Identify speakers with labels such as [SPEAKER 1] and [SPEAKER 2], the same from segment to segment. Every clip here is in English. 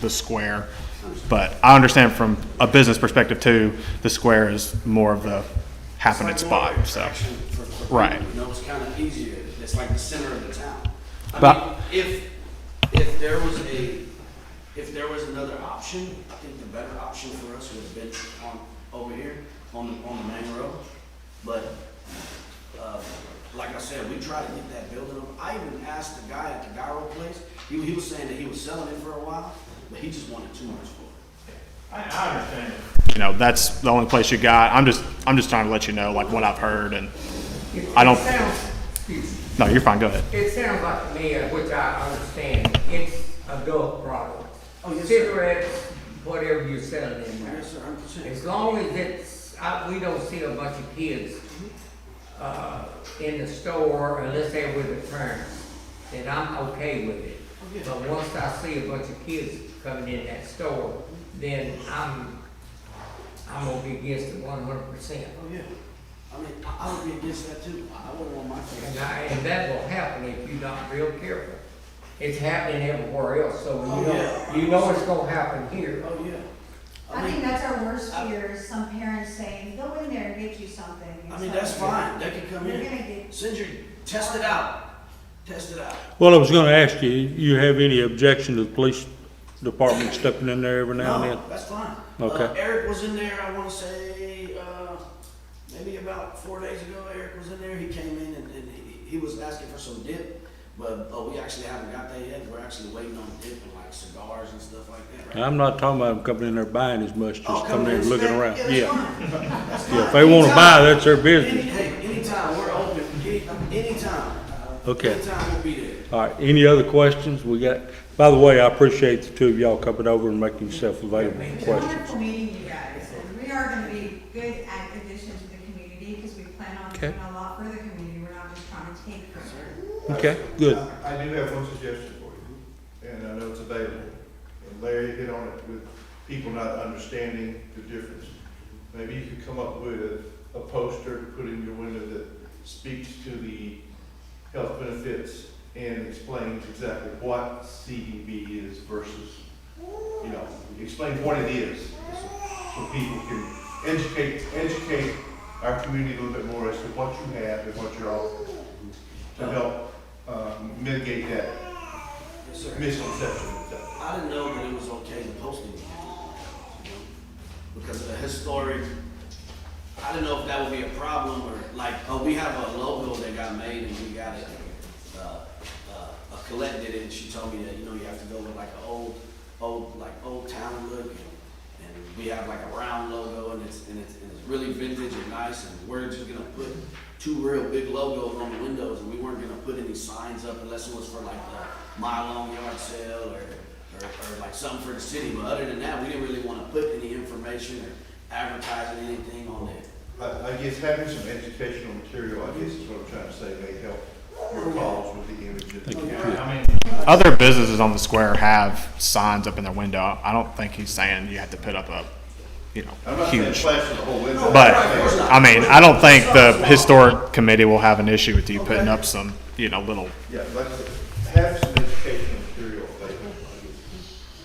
[SPEAKER 1] the square. But I understand from a business perspective too, the square is more of the happening
[SPEAKER 2] It's like more of an
[SPEAKER 1] spot, so.
[SPEAKER 2] attraction for- for people,
[SPEAKER 1] Right.
[SPEAKER 2] You know, it's kind of easier, it's like the center of the town.
[SPEAKER 1] But-
[SPEAKER 2] I mean, if, if there was a, if there was another option, I think the better option for us would have been on, over here, on the, on the main road. But, uh, like I said, we tried to get that building up, I even asked the guy at the gyro place, he, he was saying that he was selling it for a while, but he just wanted too much for it.
[SPEAKER 3] I, I understand.
[SPEAKER 1] You know, that's the only place you got. I'm just, I'm just trying to let you know like what I've heard and, I don't-
[SPEAKER 4] It sounds- excuse me.
[SPEAKER 1] no, you're fine, go ahead.
[SPEAKER 4] It sounds like to me, uh, which I understand, it's adult products.
[SPEAKER 2] Oh, yes, sir.
[SPEAKER 4] Cigarettes, whatever you're selling in there.
[SPEAKER 2] Yes, sir, I'm concerned.
[SPEAKER 4] As long as it's, I, we don't see a bunch of kids, uh, in the store unless they're with their parents, then I'm okay with it.
[SPEAKER 2] yeah.
[SPEAKER 4] But once I see a bunch of kids coming in that store, then I'm, I'm gonna be against it one hundred percent.
[SPEAKER 2] Oh, yeah, I mean, I, I would be against that too, I wouldn't want my kids.
[SPEAKER 4] And I, and that will happen if you're not real careful. It's happening everywhere else, so
[SPEAKER 2] Oh,
[SPEAKER 4] you know,
[SPEAKER 2] yeah.
[SPEAKER 4] you know it's gonna happen here.
[SPEAKER 2] Oh, yeah.
[SPEAKER 5] I think that's our worst fear, is some parents saying, go in there and get you something.
[SPEAKER 2] I mean, that's fine, they can come
[SPEAKER 5] You're
[SPEAKER 2] in,
[SPEAKER 5] gonna get,
[SPEAKER 2] send your, test it out, test it out.
[SPEAKER 6] Well, I was gonna ask you, you have any objection to the police department stepping in there every now and
[SPEAKER 2] No,
[SPEAKER 6] then?
[SPEAKER 2] that's fine.
[SPEAKER 6] Okay.
[SPEAKER 2] Uh, Eric was in there, I wanna say, uh, maybe about four days ago, Eric was in there, he came in and, and he, he was asking for some dip, but, uh, we actually haven't got that yet, we're actually waiting on dip and like cigars and stuff like that, right?
[SPEAKER 6] I'm not talking about them coming in there buying as much,
[SPEAKER 2] Oh,
[SPEAKER 6] just coming in and
[SPEAKER 2] and
[SPEAKER 6] looking
[SPEAKER 2] snack.
[SPEAKER 6] around,
[SPEAKER 2] that's
[SPEAKER 6] yeah.
[SPEAKER 2] fine. That's
[SPEAKER 6] Yeah,
[SPEAKER 2] fine.
[SPEAKER 6] if they wanna buy,
[SPEAKER 2] Anytime.
[SPEAKER 6] that's their
[SPEAKER 2] Any,
[SPEAKER 6] business.
[SPEAKER 2] hey, anytime, we're open, any, anytime.
[SPEAKER 6] Okay.
[SPEAKER 2] Anytime we'll be there.
[SPEAKER 6] All right, any other questions? We got, by the way, I appreciate the two of y'all coming over and making yourself available
[SPEAKER 5] it
[SPEAKER 6] for
[SPEAKER 5] was
[SPEAKER 6] questions.
[SPEAKER 5] wonderful meeting you guys, and we are gonna be good at addition to the community, because we plan on
[SPEAKER 6] Okay.
[SPEAKER 5] doing a lot for the community, we're not just trying to take from it.
[SPEAKER 6] Okay, good.
[SPEAKER 7] I I do have one suggestion for you, and I know it's available. And Larry hit on it with people not understanding the difference. Maybe you could come up with a poster to put in your window that speaks to the health benefits and explains exactly what CDB is versus, you know, explain what it is. So people can educate, educate our community a little bit more as to what you have and what you're offering to help um, mitigate that
[SPEAKER 2] Yes, sir.
[SPEAKER 7] misconception.
[SPEAKER 2] I didn't know that it was okay to post it. Because of the historic, I didn't know if that would be a problem or like, oh, we have a logo that got made and we got it, uh, uh, a Colette did it and she told me that, you know, you have to go with like an old, old, like old town look. and- And we have like a round logo and it's, and it's, and it's really vintage and nice and we're just gonna put two real big logos on the windows and we weren't gonna put any signs up unless it was for like the mile long yard sale or, or, or like something for the city. But other than that, we didn't really wanna put any information or advertising anything on there.
[SPEAKER 7] I, I guess having some educational material, I guess is what I'm trying to say, may help your cause with the image. that-
[SPEAKER 3] I mean,
[SPEAKER 1] Other businesses on the square have signs up in their window. I don't think he's saying you have to put up a, you
[SPEAKER 7] I'm
[SPEAKER 1] know,
[SPEAKER 7] not saying
[SPEAKER 1] huge.
[SPEAKER 7] flashing the whole window.
[SPEAKER 1] But, I mean, I don't think the historic committee will have an issue with you putting up some, you know, little,
[SPEAKER 7] Yeah, like, I said, have some educational material available.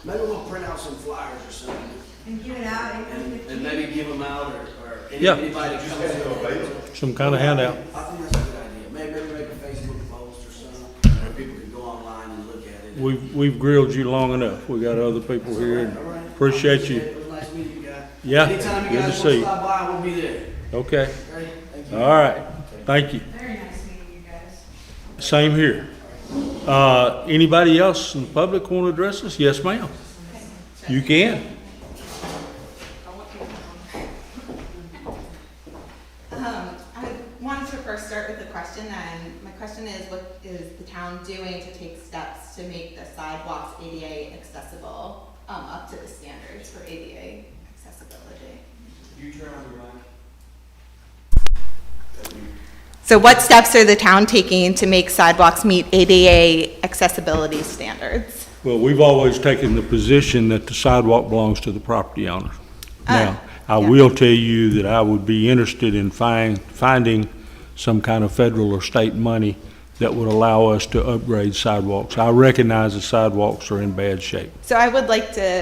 [SPEAKER 2] Maybe we'll print out some flyers or something
[SPEAKER 5] And give it out, even
[SPEAKER 2] and,
[SPEAKER 5] if
[SPEAKER 2] and
[SPEAKER 5] you-
[SPEAKER 2] maybe give them out or, or any-
[SPEAKER 6] Yeah.
[SPEAKER 2] anybody that
[SPEAKER 7] Just
[SPEAKER 2] comes
[SPEAKER 7] have them
[SPEAKER 2] in.
[SPEAKER 7] available.
[SPEAKER 6] Some kind of handout.
[SPEAKER 2] I think that's a good idea. Maybe, maybe make a Facebook post or something where people can go online and look at it.
[SPEAKER 6] We've, we've grilled you long enough. We got other people here and
[SPEAKER 2] All right.
[SPEAKER 6] appreciate you.
[SPEAKER 2] It was nice meeting you guys.
[SPEAKER 6] Yeah,
[SPEAKER 2] Anytime
[SPEAKER 6] good
[SPEAKER 2] you
[SPEAKER 6] to
[SPEAKER 2] guys
[SPEAKER 6] see
[SPEAKER 2] want to
[SPEAKER 6] you.
[SPEAKER 2] stop by, we'll be there.
[SPEAKER 6] Okay,
[SPEAKER 2] Great, thank you.
[SPEAKER 6] all right, thank you.
[SPEAKER 5] very nice meeting you guys.
[SPEAKER 6] Same here. Uh, Anybody else in the public want to address us? Yes, ma'am. You can.
[SPEAKER 8] Um, I wanted to first start with a question, and my question is, what is the town doing to take steps to make the sidewalks ADA accessible, um, up to the standards for ADA accessibility?
[SPEAKER 2] You turn on your mic.
[SPEAKER 8] So what steps are the town taking to make sidewalks meet ADA accessibility standards?
[SPEAKER 6] Well, we've always taken the position that the sidewalk belongs to the property owner. Now, I
[SPEAKER 8] yeah.
[SPEAKER 6] will tell you that I would be interested in find, finding some kind of federal or state money that would allow us to upgrade sidewalks. I recognize the sidewalks are in bad shape.
[SPEAKER 8] So I would like to